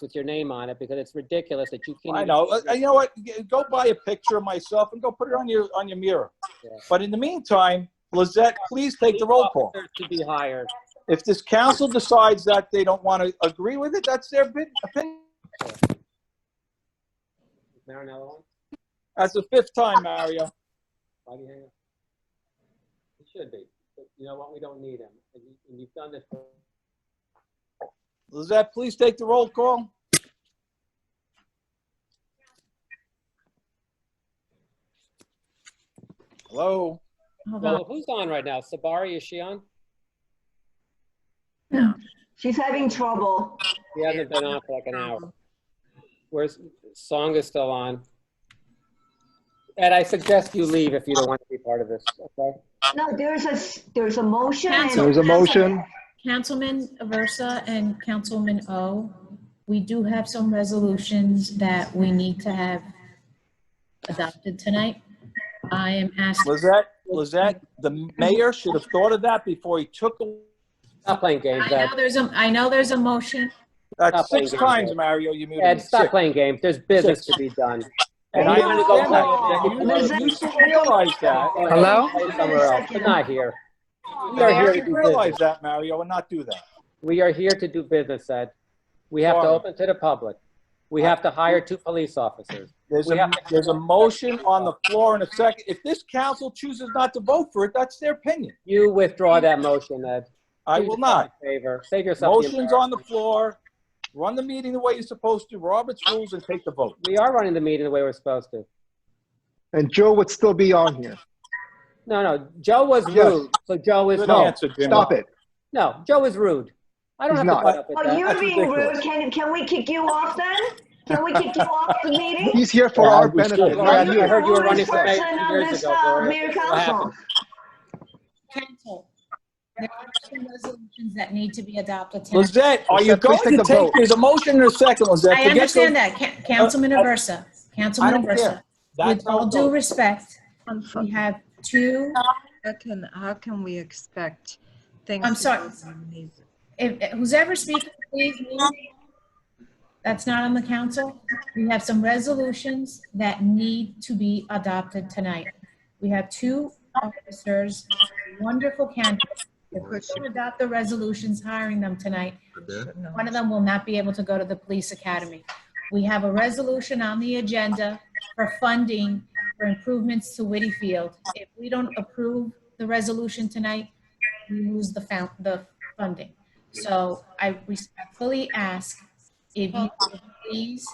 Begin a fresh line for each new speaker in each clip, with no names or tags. with your name on it because it's ridiculous that you can't.
I
even-
know. Uh, You know what? G- Go buy a picture of myself and go put it on your, on your mirror.
Yeah.
But in the meantime, Lizette, please take the roll call.
Officers To be hired.
If this council decides that they don't want to agree with it, that's their bid- opinion.
Is there another one?
That's the fifth time, Mario.
Why do you hang up? It should be, but you know what? We don't need him. And you- and you've done this. for-
Lizette, please take the roll call. Hello?
Hold
Well,
on.
Oh, who's on right now? Sabari, is she on?
No.
She's having trouble.
She hasn't been on for like an hour. Where's, Song is still on. Ed, I suggest you leave if you don't want to be part of this, okay?
No, there's a, s- there's a motion. and-
Council-
There's a motion.
Councilman Aversa and Councilman O, we do have some resolutions that we need to have adopted tonight. I am asking,
Lizette, Lizette, the mayor should have thought of that before he took, a-
Stop playing games,
I
Ed.
know there's a, I know there's a motion.
that's six times, Mario, you muted
Ed,
me.
stop
Six.
playing games. There's business to be done.
And I understand that. and You you should realize that.
Hello?
Somewhere else, but not here.
You
We are here to
should
do business.
realize that, Mario, and not do that.
We are here to do business, Ed. We have to
Sorry.
open to the public. We have to hire two police officers.
There's
We
a,
have to-
there's a motion on the floor in a second. If this council chooses not to vote for it, that's their opinion.
You withdraw that motion, Ed.
I
Do
will
yourself
not.
a Favor, save yourself. the
Motion's on the floor. Run the meeting the way you're supposed to, Robert's rules, and take the vote.
embarrassment. We are running the meeting the way we're supposed to.
And Joe would still be on here.
No, no, Joe was
Yes.
rude, so Joe is
Good
no,
answer, Jimmy.
Stop it.
no, Joe is rude. I don't have to
He's not.
put up with
Oh,
that.
you're
That's
being rude.
ridiculous.
Can, can we kick you off then? Can we kick you off the meeting?
He's here for
Yeah,
our
we should.
benefit,
Well,
not
I
you.
heard you were running for mayor
Person of
years
this,
ago,
uh,
Gloria.
Mayor
What
Council.
happened?
Council, there are some resolutions that need to be adopted tonight.
Lizette, are you
Lizette, please
going
take
to
the
take,
vote.
there's a motion in a second, Lizette.
I
Forget your-
understand that, Ca- Councilman
I-
Aversa,
Uh, I
Councilman
don't
Aversa.
care.
With
That's how
all
it
due
goes.
respect, we have two
How can, how can we expect things?
I'm
to
sorry.
go from these-
If, if- who's ever speaking, please mute. That's not on the council. We have some resolutions that need to be adopted tonight. We have two officers, wonderful candidates. If we don't adopt the resolutions hiring them tonight,
no.
one of them will not be able to go to the police academy. We have a resolution on the agenda for funding for improvements to Whitty Field. If we don't approve the resolution tonight, we lose the found, the funding. So I respectfully ask if you could please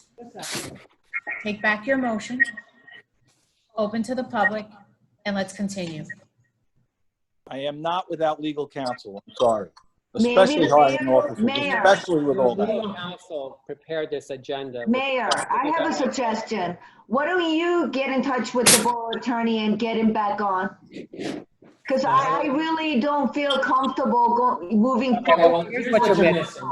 take back your motion, open to the public, and let's continue.
I am not without legal counsel, I'm sorry.
Maybe
Especially
the
hiring
mayor-
officers,
mayor.
especially with all that.
Legal counsel prepared this agenda.
Mayor, I have a suggestion. Why don't you get in touch with the borough attorney and get him back on? Because I, I really don't feel comfortable go, moving
Okay, well,
forward.
here's what you're missing.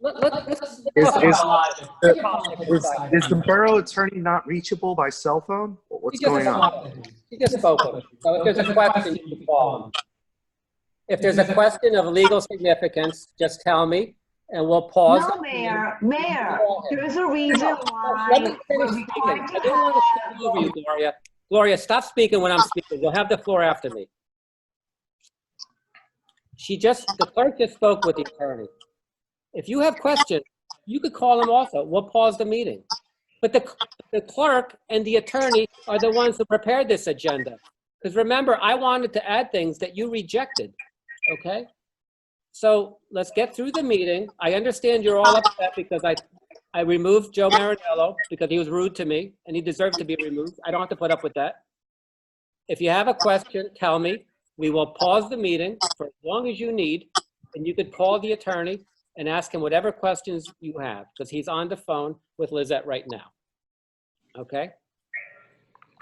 Let- let- let's-
Is-
let's-
is-
let's-
Is, is the borough attorney not reachable by cell phone? What's
He just
going on?
spoke. He just spoke. with us. So if there's a question, you can call him. If there's a question of legal significance, just tell me, and we'll pause.
No, Mayor, Mayor, there is a reason
Let me
why we're
finish speaking.
required
I
to
don't want to
have
speak over you, Gloria. Gloria, stop speaking when I'm speaking. You'll have the floor after me. She just, the clerk just spoke with the attorney. If you have questions, you could call them also. We'll pause the meeting. But the, the clerk and the attorney are the ones who prepared this agenda. Because remember, I wanted to add things that you rejected, okay? So let's get through the meeting. I understand you're all upset because I, I removed Joe Marinello because he was rude to me and he deserved to be removed. I don't have to put up with that. If you have a question, tell me. We will pause the meeting for as long as you need and you could call the attorney and ask him whatever questions you have because he's on the phone with Lizette right now. Okay?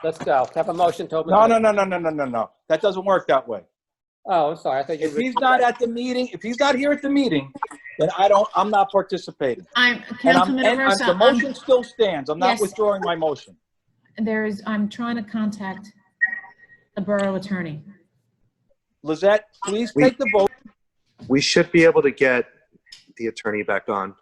Let's go. Have a motion to open.
No,
the-
no, no, no, no, no, no, no. That doesn't work that way.
Oh, I'm sorry. I thought you.
If he's not at the meeting, if he's not here at the meeting, then I don't, I'm not participating.
I'm,
And I'm,
Councilman
and I'm-
Aversa,
the
I'm-
motion still stands. I'm not
Yes.
withdrawing my motion.
there is, I'm trying to contact the borough attorney.
Lizette, please
We-
take the vote.
We should be able to get the attorney back on.